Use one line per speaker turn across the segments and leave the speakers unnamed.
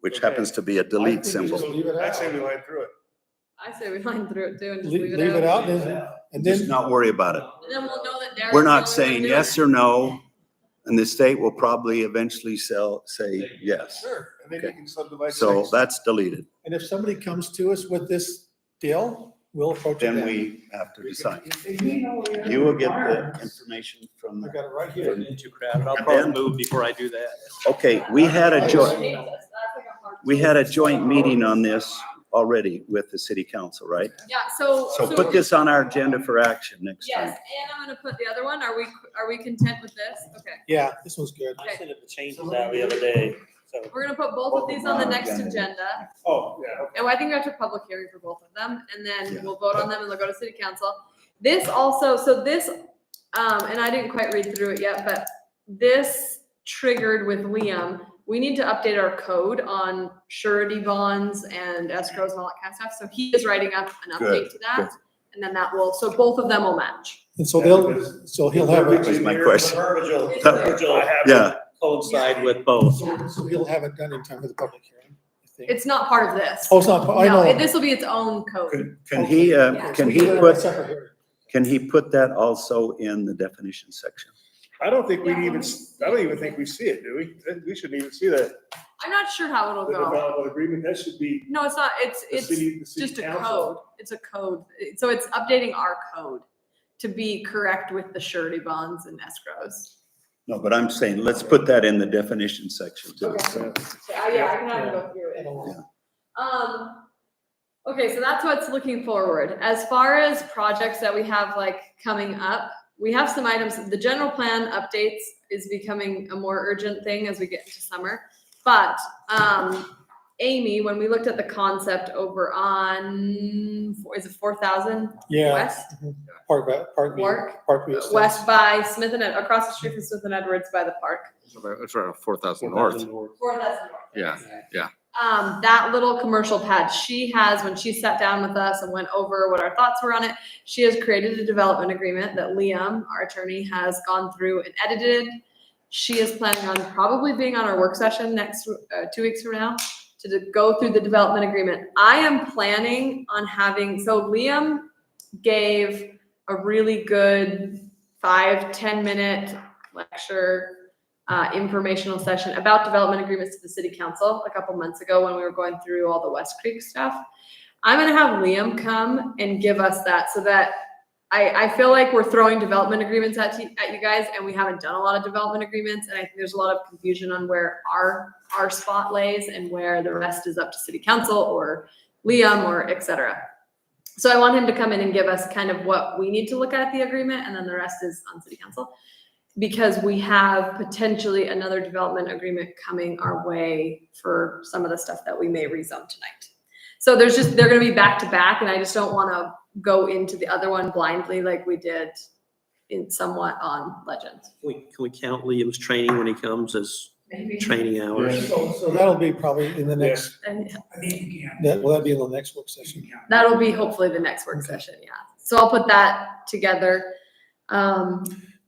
which
Okay.
happens to be a
I
delete
think we
symbol.
just leave it
I'd
out.
say we line through it.
I say we line through it too and just
Leave
leave
leave it
it out.
out, and and
Just
then,
not worry about it.
And then we'll know that Darren's.
We're
the
not
only one
saying
doing
yes
it.
or no, and the state will probably eventually sell, say yes.
Sure, and then you
Okay.
can subdivide.
So
things.
that's deleted.
and if somebody comes to us with this deal, we'll approach it
Then
then.
we have to decide. You
You
will get the information from
I
the,
got it right
You're
here.
getting too crowded. I'll
And
probably
then-
move before I do that.
okay, we had a
joy.
joint,
Oh, Jesus, that's like a hard-
we had a joint meeting on this already with the city council, right?
Yeah, so.
So put this on our agenda for action next time.
Yes, and I'm gonna put the other one. Are we, are we content with this? Okay.
Yeah, this one's good.
Okay.
I sent up the changes out the other day, so.
We're gonna put both of these on the next agenda.
Oh, yeah.
And I think we have to public hearing for both of them and
Yeah.
then we'll vote on them and they'll go to city council. This also, so this, um, and I didn't quite read through it yet, but this triggered with Liam. We need to update our code on surety bonds and escrows and all that kind of stuff. So he is writing up an
Good,
update to that. And then that will, so both of them will match.
And so they'll, so he'll have,
That
it-
was my
Engineer,
question.
verbiage will-
That-
verbiage will have-
Yeah,
Coincide with both.
so so he'll have it done in time for the public hearing. I think.
It's not part of this.
Oh, it's not, I
No,
know.
it- this will be its own code.
can can he, uh,
Yeah.
can
We
he
do it at
put,
separate hearing.
can he put that also in the definition section?
I don't think we'd even, s- I don't even think we see it, do we? We shouldn't even see that.
I'm not sure how it'll
The
go.
development agreement, that should be
No, it's not, it's,
the
it's
city, the city
just a
council.
code. It's a code. It- So it's updating our code to be correct with the surety bonds and escrows.
No, but I'm saying, let's put that in the definition section too. So
uh, yeah, I can have to go through
I don't know.
Um, okay, so that's what's looking forward. As far as projects that we have like coming up, we have some items, the general plan updates is becoming a more urgent thing as we get into summer. But, um, Amy, when we looked at the concept over on, is it four thousand
Yeah,
west?
Park, Ba- Park View,
Park?
Park View Estates.
West by Smith and, Ed- across the street from Smith and Edwards by the park.
It's around four thousand north.
Four thousand north.
Yeah, yeah.
Um, that little commercial pad, she has, when she sat down with us and went over what our thoughts were on it, she has created a development agreement that Liam, our attorney, has gone through and edited. She is planning on probably being on our work session next, uh, two weeks from now to d- go through the development agreement. I am planning on having, so Liam gave a really good five, 10 minute lecture uh, informational session about development agreements to the city council a couple months ago when we were going through all the West Creek stuff. I'm gonna have Liam come and give us that so that I, I feel like we're throwing development agreements at, you- at you guys and we haven't done a lot of development agreements. And I think there's a lot of confusion on where our, our spot lays and where the rest is up to city council or Liam or et cetera. So I want him to come in and give us kind of what we need to look at the agreement and then the rest is on city council because we have potentially another development agreement coming our way for some of the stuff that we may rezone tonight. So there's just, they're gonna be back to back, and I just don't wanna go into the other one blindly like we did in somewhat on Legend.
We, can we count Liam's training when he comes as
Maybe.
training hours?
So so that'll be probably in the next
And
That, will that be in the next work session?
That'll be hopefully the next work session, yeah. So I'll put that together. Um,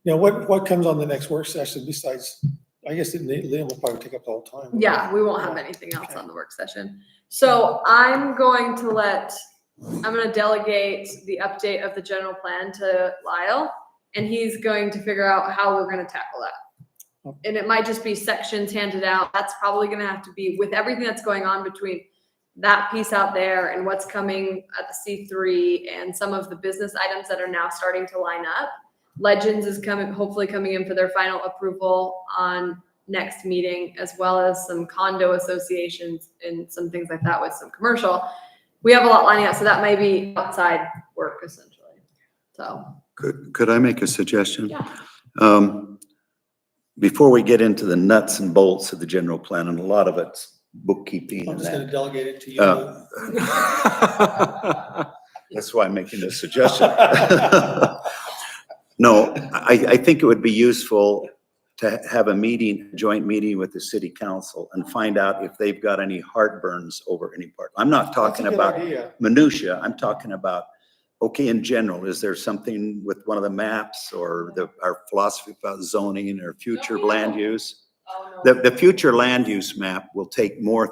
Now, what, what comes on the next work session besides, I guess it- Liam will probably take up the whole time.
Yeah, we won't have anything else on the work session. So I'm going to let, I'm gonna delegate the update of the general plan to Lyle. And he's going to figure out how we're gonna tackle that. And it might just be sections handed out. That's probably gonna have to be with everything that's going on between that piece out there and what's coming at the C three and some of the business items that are now starting to line up. Legends is coming, hopefully coming in for their final approval on next meeting, as well as some condo associations and some things like that with some commercial. We have a lot lining up, so that may be outside work essentially. So,
Could, could I make a suggestion?
yeah.
Um, before we get into the nuts and bolts of the general plan, and a lot of it's bookkeeping
I'm
and
just gonna
that,
delegate it to you.
Uh, that's why I'm making this suggestion. No, I, I think it would be useful to have a meeting, joint meeting with the city council and find out if they've got any heartburns over any part. I'm not
That's a
talking
good
about
idea.
minutia, I'm talking about, okay, in general, is there something with one of the maps or the, our philosophy about zoning or future
No, we
land
don't.
use? The, the future land use map will take more